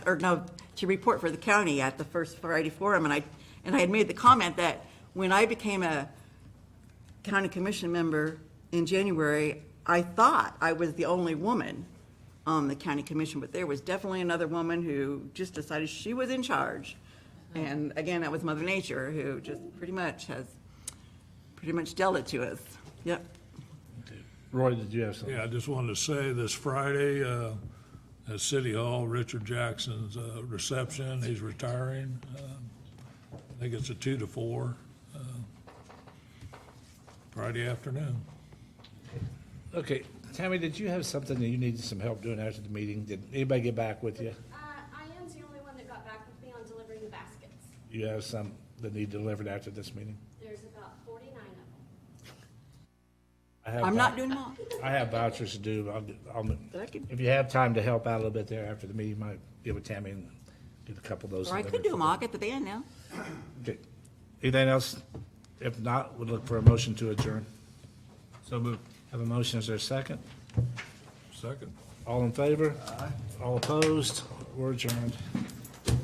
or no, to report for the county at the first Friday forum, and I, and I had made the comment that when I became a county commission member in January, I thought I was the only woman on the county commission, but there was definitely another woman who just decided she was in charge. And again, that was Mother Nature, who just pretty much has, pretty much dealt it to us. Yep. Roy, did you have something? Yeah, I just wanted to say this Friday, uh, at City Hall, Richard Jackson's, uh, reception, he's retiring. Um, I think it's a two to four, uh, Friday afternoon. Okay, Tammy, did you have something that you needed some help doing after the meeting? Did anybody get back with you? Uh, I am the only one that got back with me on delivering the baskets. You have some that need delivered after this meeting? There's about forty-nine of them. I have I'm vou- not doing all, I have vouchers to do. I'll, I'll, but I could, if you have time to help out a little bit there after the meeting, you might get with Tammy and get a couple of those. or I could delivered do them all. for- I got the band now. Okay. Anything else? If not, we'll look for a motion to adjourn. So moved. Have a motion, is there a second? Second. All in favor? Aye. All opposed? We're adjourned.